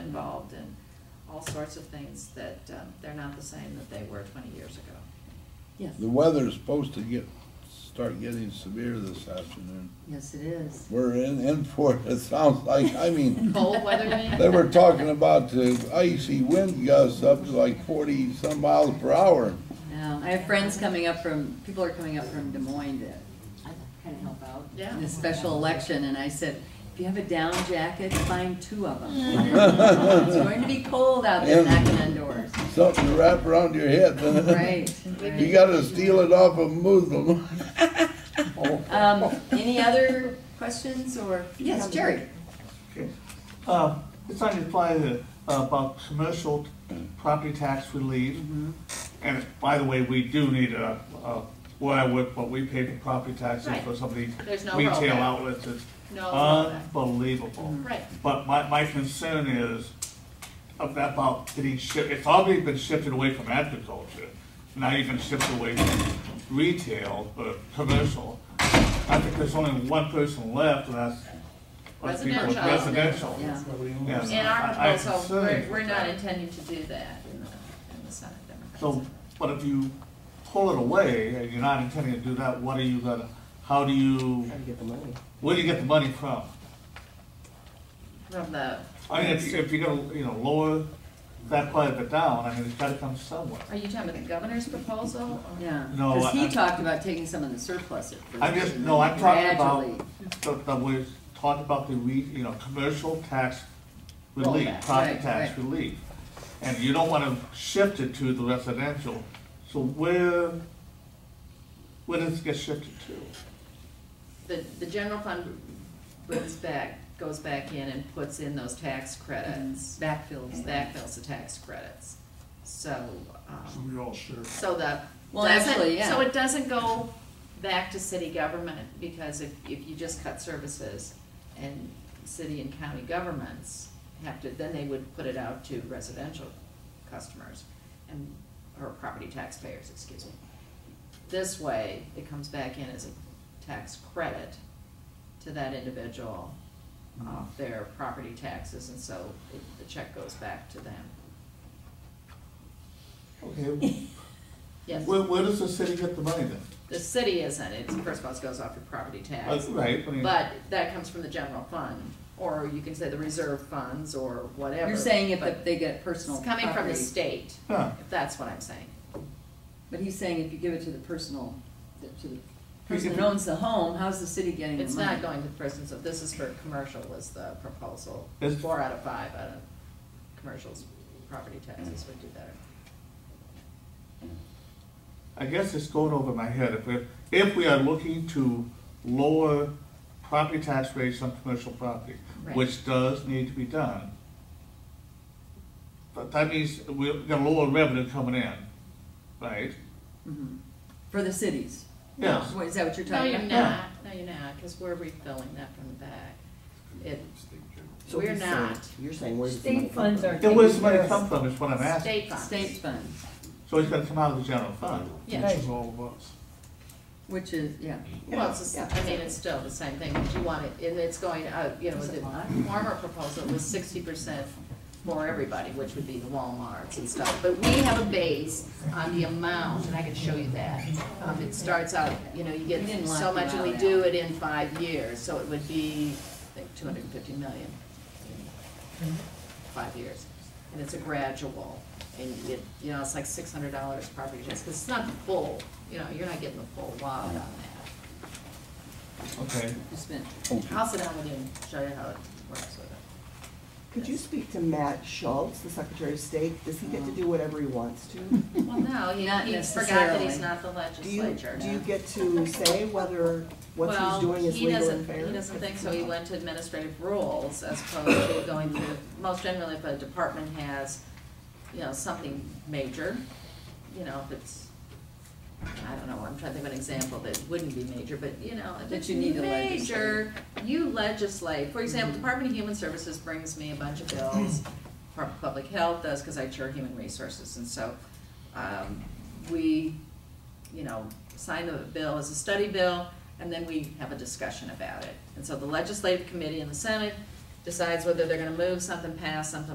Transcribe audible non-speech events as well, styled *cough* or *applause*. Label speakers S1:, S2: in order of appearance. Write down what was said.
S1: involved in all sorts of things that, um, they're not the same that they were twenty years ago.
S2: Yes,
S3: The weather's supposed to get, start getting severe this afternoon.
S2: yes, it is.
S3: We're in, in for it, it sounds like, I mean,
S1: Cold weather, you
S4: *laughs*
S1: mean?
S3: they were talking about the icy wind gusts up to like forty some miles per hour.
S2: No, I have friends coming up from, people are coming up from Des Moines to kind of help out.
S1: Yeah.
S2: In this special election, and I said, if you have a down jacket, find two of
S1: *laughs*
S2: them. It's going to be cold out there
S3: Yeah.
S2: knocking on doors.
S3: Something to wrap around your head.
S2: Right.
S3: You
S2: right.
S3: gotta steal it off a Muslim.
S2: Um, any other questions or?
S1: Yes, Jerry.
S4: Uh, It's on your slide that, uh, about commercial property tax relief.
S1: Mm-hmm.
S4: And by the way, we do need a, a- where I work, but we pay the property taxes
S1: Right.
S4: for some of these
S1: There's no
S4: retail
S1: rollback.
S4: outlets. It's
S1: No rollback. Mm-hmm.
S4: unbelievable.
S1: Right,
S4: But my, my concern is of that about getting shipped, it's already been shifted away from agriculture. Now you've been shifted away from retail, or commercial. I think there's only one person left, and that's. that's people with
S1: Residential.
S4: Residential.
S2: Yeah.
S4: Yes,
S1: in our
S4: I- I'm
S1: proposal, we're,
S4: concerned
S1: we're
S4: with
S1: not
S4: that.
S1: intending to do that in the, in the Senate
S4: So,
S1: Democrats.
S4: but if you pull it away, and you're not intending to do that, what are you gonna, how do you,
S5: get the money.
S4: where do you get the money from?
S1: From the,
S4: I mean, if, if you're gonna, you know, lower that part of it down, I mean, it's gotta come somewhere.
S1: are you talking about the governor's proposal? or-
S2: Yeah,
S4: No,
S2: because
S4: I-
S2: he
S4: I-
S2: talked about taking some of the surplus at first.
S4: I'm just,
S2: and
S4: no,
S2: then
S4: I'm talking
S2: gradually-
S4: about, the- the, we're talking about the re, you know, commercial tax relief,
S1: Rollback,
S4: property
S2: right,
S4: tax
S2: right.
S4: relief. And you don't wanna shift it to the residential, so where, where does it get shifted to?
S1: The, the general fund puts back, goes back in and puts in those tax credits,
S2: Backfills that.
S1: backfills the tax credits. So,
S6: So
S1: um,
S6: we all share.
S1: so that.
S2: Well,
S1: doesn't-
S2: actually, yeah.
S1: So it doesn't go back to city government, because if, if you just cut services and city and county governments have to, then they would put it out to residential customers and, or property taxpayers, excuse me. This way, it comes back in as a tax credit to that individual
S2: Mm-hmm.
S1: off their property taxes, and so it- the check goes back to them.
S4: Okay,
S1: Yes,
S4: Where, where does the city get the money then?
S1: the city isn't, it's, first of all, it goes off your property tax,
S4: Like, Right, I mean.
S1: but that comes from the general fund, or you can say the reserve funds, or whatever.
S2: You're saying if
S1: but
S2: they get
S1: It's
S2: personal property.
S1: coming from the state,
S4: Huh,
S1: if that's what I'm saying.
S2: But he's saying if you give it to the personal, to the
S4: If you-
S2: person that owns the home, how's the city getting the money?
S1: It's not going to the person, so this is for commercial was the proposal.
S4: It's-
S1: Four out of five out of commercials, property taxes would do better.
S4: I guess it's going over my head. If we're, if we are looking to lower property tax rates on commercial property,
S1: Right.
S4: which does need to be done, but that means we're gonna lower revenue coming in, right?
S2: Mhm. For the cities?
S4: Yes.
S2: What, is that what you're
S1: No,
S2: talking
S1: you're
S2: about?
S1: not, no, you're not, because we're refilling that from the back. It,
S5: So
S1: we're
S5: he's saying-
S1: not,
S5: You're saying where's the
S7: State
S5: money? come
S7: funds
S5: from?
S7: are-
S4: Then where's the money come from is what I'm asking.
S1: state funds.
S2: State funds,
S4: So it's gonna come out of the general fund.
S1: Yeah,
S7: Right.
S6: It's all of us.
S2: which is, yeah.
S1: well, it's, the s- I mean, it's still the same thing, but you want it, and it's going, uh, you know,
S2: Is it
S1: the
S2: lot?
S1: former proposal was sixty percent for everybody, which would be the Walmarts and stuff, but we have a base on the amount, and I can show you that. Um, it starts out, you know, you
S2: We
S1: get
S2: didn't lock
S1: so
S2: the
S1: much, and we
S2: amount
S1: do
S2: out.
S1: it in five years, so it would be, I think, two hundred and fifty million in five years. And it's a gradual, and it, you know, it's like six hundred dollars property tax, because it's not the full, you know, you're not getting the full wad on that.
S4: Okay.
S2: You spent-
S1: I'll sit down with you and show you how it works with it.
S5: Could you speak to Matt Schultz, the Secretary of State? Does he get to do whatever he wants to?
S1: Oh. Well, no, he,
S2: Not
S1: he forgot that he's
S2: necessarily.
S1: not the
S5: Do you,
S1: legislature.
S5: do you get to say whether what he's doing is legal and fair?
S1: Well, he doesn't, he doesn't think
S5: *laughs*
S1: so, he went to administrative rules as opposed to going through, most generally if a department has, you know, something major, you know, if it's, I don't know, I'm trying to think of an example that wouldn't be major, but you know, if
S2: That
S1: it's
S2: you need to
S1: major, you legislate, for example, Department of Human Services brings me a bunch of bills, Department of Public Health does, cause I chair Human Resources, and so, um, we, you know, sign the bill as a study bill, and then we have a discussion about it. And so the legislative committee in the Senate decides whether they're gonna move something, pass something,